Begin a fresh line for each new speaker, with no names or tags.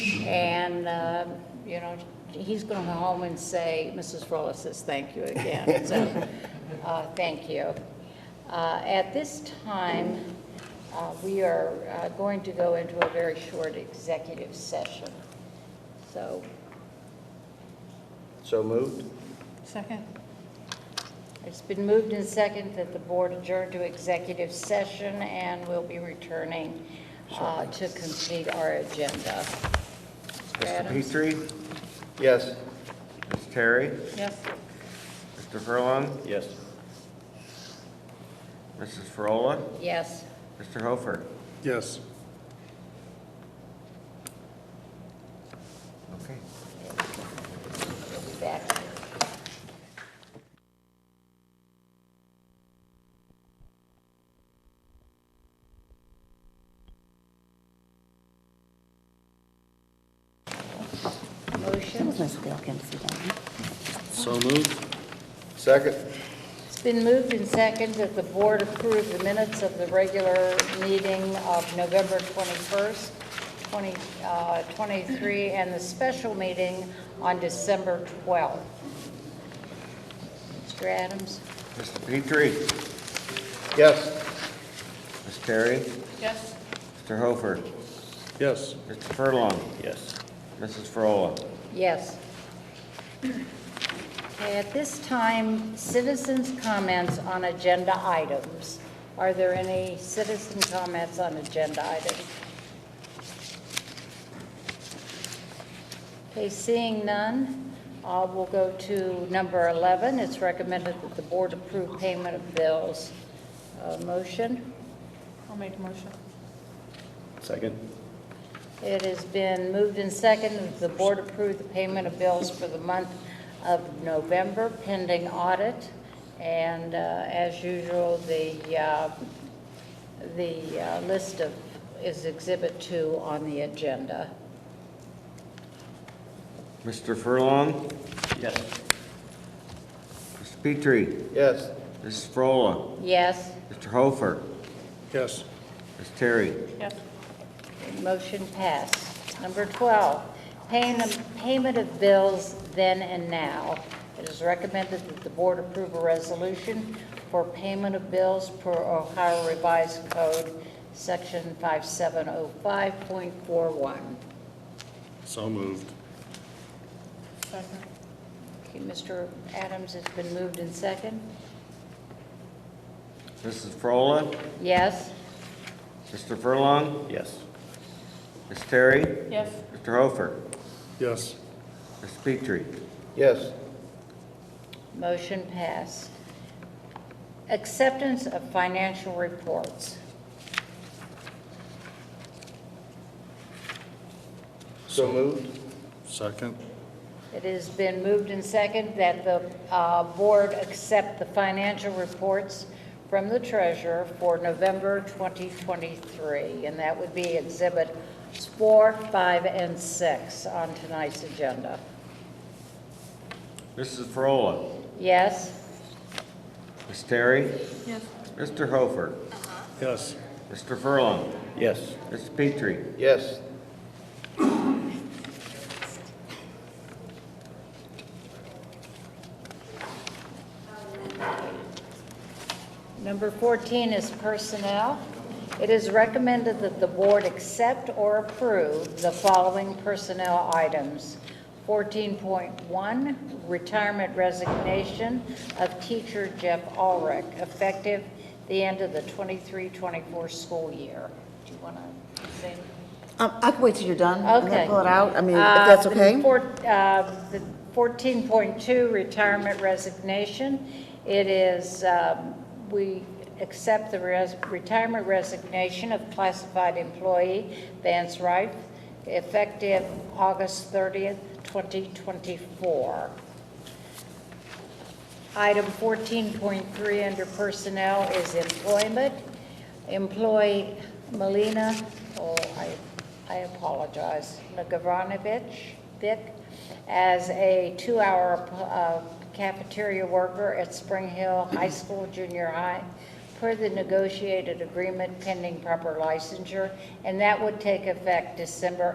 And, uh, you know, he's going to go home and say, Mrs. Rolla says, thank you again. So, uh, thank you. Uh, At this time, uh, we are uh, going to go into a very short executive session. So
So moved?
Second.
It's been moved and second that the board adjourn to executive session, and we'll be returning uh, to complete our agenda. Mr.
Mr.
Adams?
Petrie,
Yes.
Ms. Terry,
Yes.
Mr. Furlong,
Yes.
Mrs. Frola,
Yes.
Mr. Hofer.
Yes.
Okay.
We'll be back. Motion?
Miss Wilkins again.
So moved? Second?
It's been moved and second that the board approve the minutes of the regular meeting of November 21st, 2023, and the special meeting on December 12th. Mr. Adams?
Mr. Petrie,
Yes.
Ms. Terry,
Yes.
Mr. Hofer,
Yes.
Mr. Furlong,
Yes.
Mrs. Frola.
Yes. Okay, at this time, citizens' comments on agenda items. Are there any citizen comments on agenda items? Okay, seeing none, uh, we'll go to number 11. It's recommended that the board approve payment of bills. Uh, Motion?
I'll make the motion.
Second?
It has been moved and seconded that the board approve the payment of bills for the month of November pending audit. And uh, as usual, the, uh, the uh, list of, is Exhibit 2 on the agenda.
Mr. Furlong,
Yes.
Mr. Petrie,
Yes.
Mrs. Frola,
Yes,
Mr. Hofer,
Yes.
Ms. Terry,
Yes.
motion passed. Number 12, paying- payment of bills then and now. It is recommended that the board approve a resolution for payment of bills per Ohio Revised Code, Section 5705.41.
So moved.
Second.
Okay, Mr. Adams, it's been moved in second.
Mrs. Frola,
Yes?
Mr. Furlong,
Yes.
Ms. Terry,
Yes.
Mr. Hofer,
Yes.
Mr. Petrie,
Yes.
Motion passed. Acceptance of financial reports.
So moved?
Second.
It has been moved and second that the uh, board accept the financial reports from the treasurer for November 2023, and that would be Exhibit 4, 5, and 6 on tonight's agenda.
Mrs. Frola,
Yes?
Ms. Terry,
Yes.
Mr. Hofer,
Yes.
Mr. Furlong,
Yes.
Mr. Petrie,
Yes.
Number 14 is personnel. It is recommended that the board accept or approve the following personnel items. 14.1, retirement resignation of teacher Jeff Ulrich, effective the end of the 23-24 school year. Do you want to say anything?
Um, I can wait till you're done. I'm gonna
Okay.
pull it out, I mean, if
Uh,
that's
the
okay.
four- uh, The 14.2 retirement resignation, it is, um, we accept the res- retirement resignation of classified employee Vance Rife, effective August 30th, 2024. Item 14.3 under personnel is employment. Employee Melina, oh, I, I apologize, Nagoranovich, Vic, as a two-hour uh, cafeteria worker at Spring Hill High School, junior high, per the negotiated agreement pending proper licensure, and that would take effect December